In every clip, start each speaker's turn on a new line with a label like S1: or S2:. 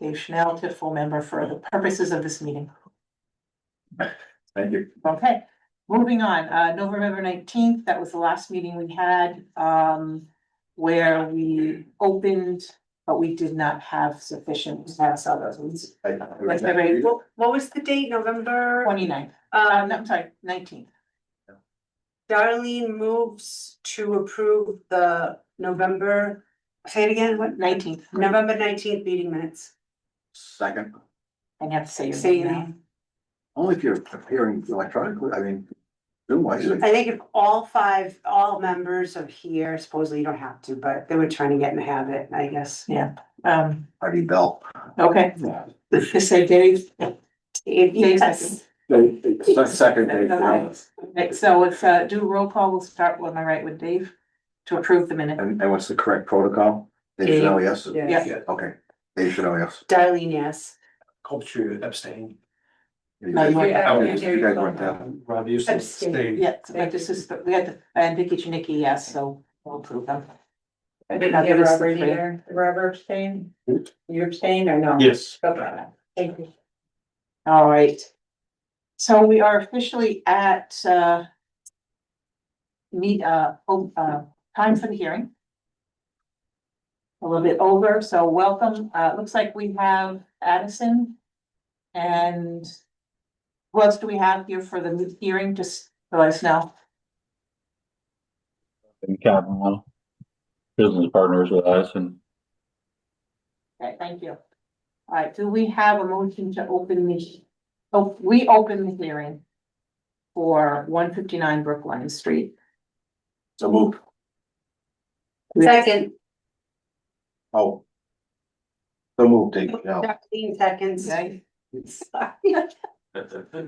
S1: Dave Chanel to full member for the purposes of this meeting.
S2: Thank you.
S1: Okay, moving on, uh, November nineteenth, that was the last meeting we had, um, where we opened, but we did not have sufficient, I saw those ones.
S2: I-
S1: Like February
S3: What, what was the date, November?
S1: twenty ninth, uh, no,
S3: Um,
S1: I'm sorry, nineteenth.
S3: Darlene moves to approve the November, say it again, what?
S1: Nineteenth,
S3: November nineteenth meeting minutes.
S2: Second,
S1: I have to say your
S3: Say
S1: name
S3: your
S1: now.
S3: name.
S2: only if you're appearing electronically, I mean, Zoom wise.
S3: I think if all five, all members of here, supposedly you don't have to, but they were trying to get in the habit, I guess.
S1: Um,
S2: Heidi Bell.
S1: okay, just say Dave. Dave second.
S3: Yes.
S2: Second, Dave. yeah.
S1: Okay, so if, uh, do a roll call, we'll start with my right with Dave to approve the minute.
S2: And, and what's the correct protocol? Dave Chanel, yes?
S3: Yes.
S1: Yeah,
S2: Okay, Dave Chanel, yes.
S3: Darlene, yes.
S4: Culture abstain.
S2: You
S1: No,
S2: guys
S1: you-
S2: Oh, you guys weren't there.
S4: Rob Houston
S3: Abstain.
S4: abstained.
S1: yeah, so like this is, but we had, the- and Vicky Janicki, yes, so we'll approve them.
S5: I
S1: Now
S5: didn't
S1: give
S5: give
S1: us the
S5: Robert
S1: three.
S5: either. Robert abstained?
S4: Hmm?
S5: You abstained or no?
S4: Yes.
S5: Okay, thank you.
S1: All right. So we are officially at, uh, meet, uh, o- uh, time for the hearing. A little bit over, so welcome. Uh, it looks like we have Addison. And who else do we have here for the hearing? Just let us know.
S6: and Capitol. Business partners with us and
S1: Okay, thank you. All right, do we have a motion to open the, oh, we open the hearing for one fifty-nine Brookline Street.
S2: So move.
S1: We-
S3: Second,
S2: Oh. So move, Dave Chanel.
S3: Darlene seconds.
S1: Okay,
S3: Sorry.
S1: all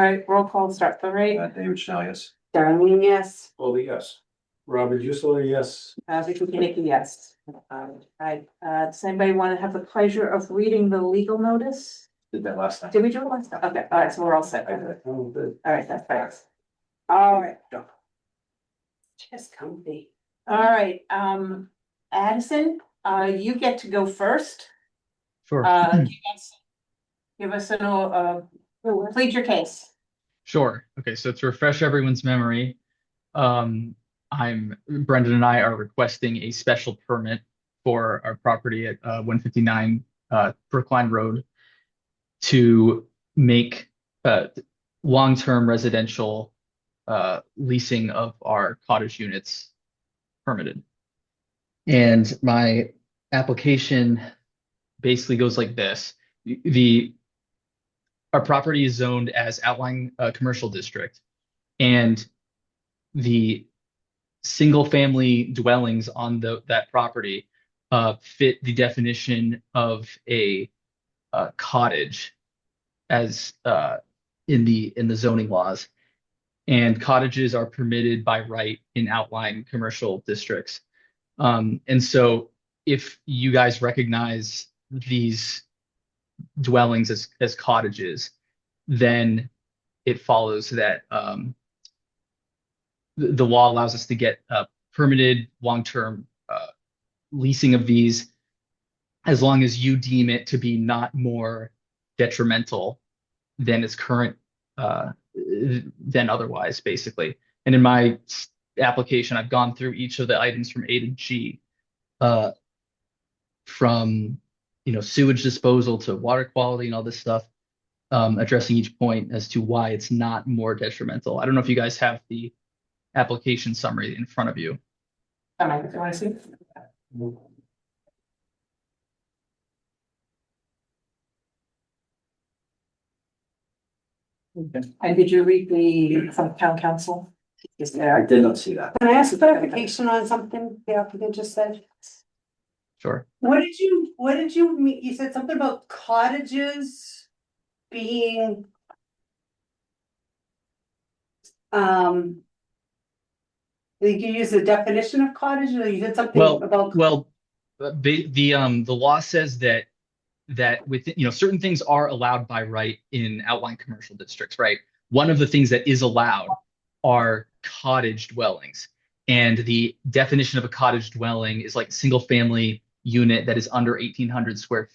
S1: right, roll call, start the rate.
S2: Uh, David Chanel, yes.
S3: Darlene, yes.
S4: All the yes. Robert Houston, yes.
S1: Uh, Vicky Kinnicky, yes. All right, uh, does anybody want to have the pleasure of reading the legal notice?
S2: Did that last time.
S1: Did we do it last time? Okay, all right, so we're all set.
S2: I
S1: All
S2: did.
S4: Oh, the-
S1: right, that's fine.
S3: All right. Just comfy.
S1: All right, um, Addison, uh, you get to go first.
S7: Sure,
S1: Uh, give us- give us an, uh, plead your case.
S7: sure. Okay, so to refresh everyone's memory, um, I'm Brendan and I are requesting a special permit for our property at uh, 159 uh, Brookline Road to make uh, long-term residential uh, leasing of our cottage units permitted. And my application basically goes like this. The- The our property is zoned as outlying uh, commercial district and the single family dwellings on the that property uh, fit the definition of a uh, cottage as uh, in the in the zoning laws and cottages are permitted by right in outlying commercial districts um, and so if you guys recognize these dwellings as as cottages then it follows that um, the, the law allows us to get uh, permitted long-term uh, leasing of these as long as you deem it to be not more detrimental than its current uh, than otherwise, basically. And in my s- application, I've gone through each of the items from A to G, uh, from you know sewage disposal to water quality and all this stuff um, addressing each point as to why it's not more detrimental. I don't know if you guys have the application summary in front of you.
S1: Come on, you wanna see? And did you read the from town council? Is there?
S2: did not see that.
S3: Can I ask clarification on something the applicant just said?
S7: Sure.
S3: What did you, what did you mean? You said something about cottages being. Um. I think you used the definition of cottage or you said something
S7: Well,
S3: about.
S7: Well, the the um the law says that that with you know certain things are allowed by right in outlying commercial districts, right? One of the things that is allowed are cottage dwellings. And the definition of a cottage dwelling is like a single family unit that is under 1800 square